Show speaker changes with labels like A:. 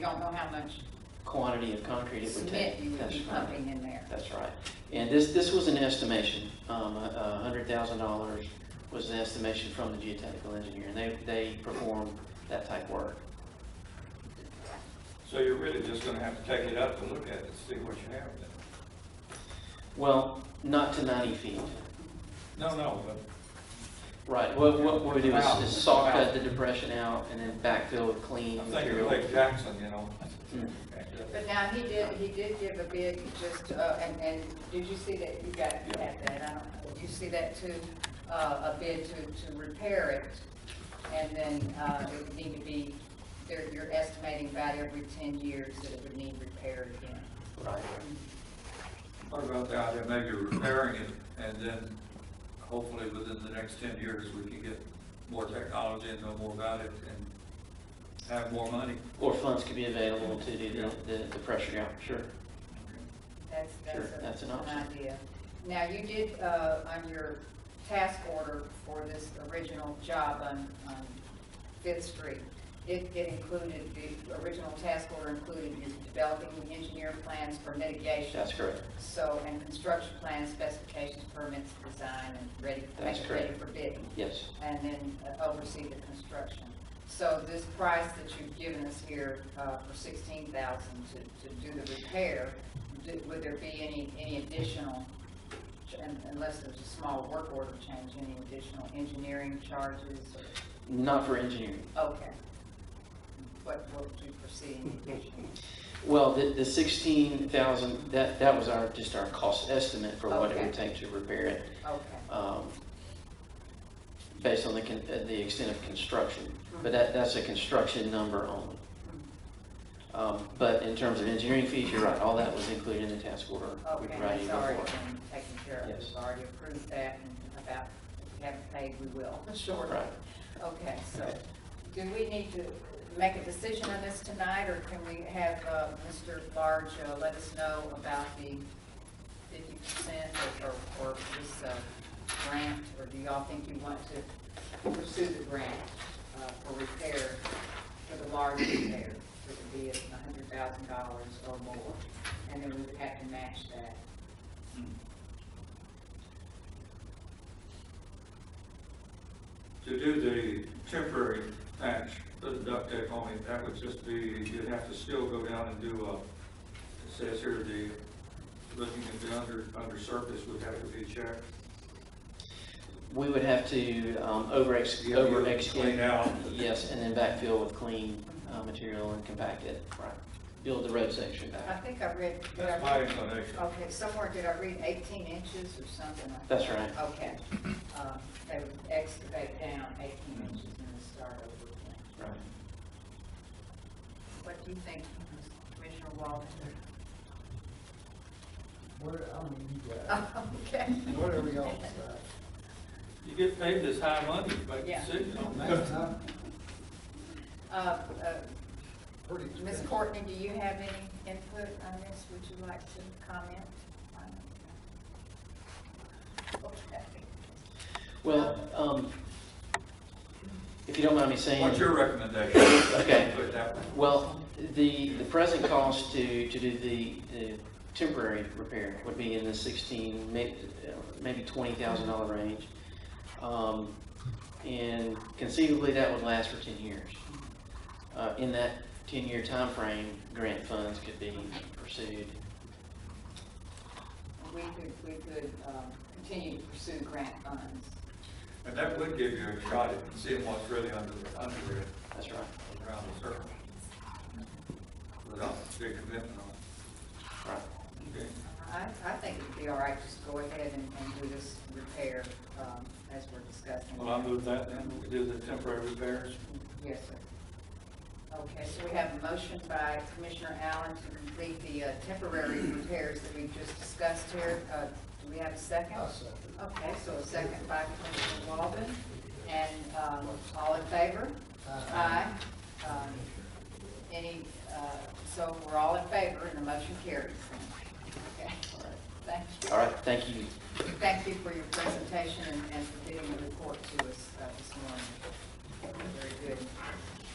A: don't know how much
B: quantity of concrete it would take.
A: cement you would
B: That's
A: be
B: right.
A: pumping in there.
B: That's right. And this, this was an estimation, um, a hundred thousand dollars was the estimation from the geotechnical engineer, and they, they perform that type work.
C: So you're really just gonna have to take it up and look at it, see what you have there.
B: Well, not to ninety feet.
C: No, no, but
B: Right, what, what we do is,
C: Wow.
B: is saw cut the depression out and then backfill with clean
C: I'm thinking of
B: material.
C: Lake Jackson, you know?
B: Mm.
A: But now, he did, he did give a bid just, uh, and, and did you see that, you got, you had that, I don't, did you see that too? Uh, a bid to, to repair it, and then, uh, it would need to be, they're, you're estimating about every ten years that it would need repair again.
B: Right.
C: What about the idea, maybe repairing it, and then hopefully within the next ten years, we can get more technology and know more about it, and have more money.
B: Or funds could be available to do the, the, the pressure out, sure.
A: That's,
B: Sure,
A: that's a-
B: that's an
A: an
B: option.
A: idea. Now, you did, uh, on your task order for this original job on, on Fifth Street, it, it included, the original task order included you developing engineer plans for mitigation,
B: That's correct.
A: so, and construction plans, specifications, permits, design, and ready,
B: That's
A: make it ready
B: correct.
A: for bidding
B: Yes,
A: and then uh, oversee the construction. So this price that you've given us here uh, for sixteen thousand to, to do the repair, do- would there be any, any additional, ch- un- unless there's a small work order change, any additional engineering charges? or-
B: not for engineering.
A: Okay. What, what would you foresee in addition?
B: Well, the, the sixteen thousand, that, that was our, just our cost estimate for what it would take to repair it.
A: Okay.
B: um, based on the, con- uh, the extent of construction, but that, that's a construction number only. Um, But in terms of engineering fees, you're right, all that was included in the task order. we
A: Okay,
B: provided
A: that's
B: you
A: already
B: before.
A: been taken care of,
B: Yes.
A: we've already approved that, and about, if we haven't paid, we will, shortly.
B: Right.
A: Okay, so, do we need to make a decision on this tonight, or can we have uh, Mr. Large uh, let us know about the fifty percent or, or this uh, grant, or do y'all think you want to pursue the grant uh, for repair, for the large repair, which would be a hundred thousand dollars or more, and then we would have to match that?
C: To do the temporary patch, put the duct tape on it, that would just be, you'd have to still go down and do a, it says here, the, looking at the under, under surface would have to be checked.
B: We would have to um, over ex,
C: You have to
B: over ex.
C: Clean out.
B: Yes, and then backfill with clean uh, material and compact it, right. Build the road section
A: I
B: back.
A: think I read. did I-
C: That's my inclination.
A: Okay, somewhere did I read 18 inches or something like that?
B: That's right.
A: Okay. Um, They would excavate down 18 inches and then start over again.
B: Right.
A: What do you think, Commissioner Walter?
D: Where, I don't need that.
A: Okay.
D: Whatever y'all decide.
C: You get paid this high money, but
A: Yeah.
C: decisions on
D: That's
C: that.
D: not
A: Uh, uh,
D: pretty
A: Ms.
D: expensive.
A: Courtney, do you have any input on this? Would you like to comment? on it? Okay.
B: Well, um, if you don't mind me saying.
C: What's your recommendation?
B: Okay.
C: Put it that way.
B: Well, the, the present cost to, to do the, the temporary repair would be in the sixteen, may- uh, maybe twenty thousand dollar range. Um, And conceivably, that would last for ten years. Uh, in that ten-year time frame, grant funds could be pursued.
A: We could, we could um, continue to pursue grant funds.
C: And that would give you a shot at seeing what's really under, the under it,
B: That's right.
C: around the circle. Without a big commitment on
B: Right.
C: it. Okay.
A: I, I think it'd be all right, just go ahead and, and do this repair, um, as we're discussing.
C: Well, I move that, then we do the temporary repairs.
A: Yes, sir. Okay, so we have a motion by Commissioner Allen to complete the uh, temporary repairs that we just discussed here. Uh, do we have a second?
D: I'll second.
A: Okay, so a second by Commissioner Walden, and, um, all in favor?
D: Aye.
A: Aye. Um, Any, uh, so we're all in favor, and the motion carries. Okay,
B: All right.
A: thank you.
B: All right, thank you.
A: Thank you for your presentation and and for getting the report to us uh, this morning. Very good.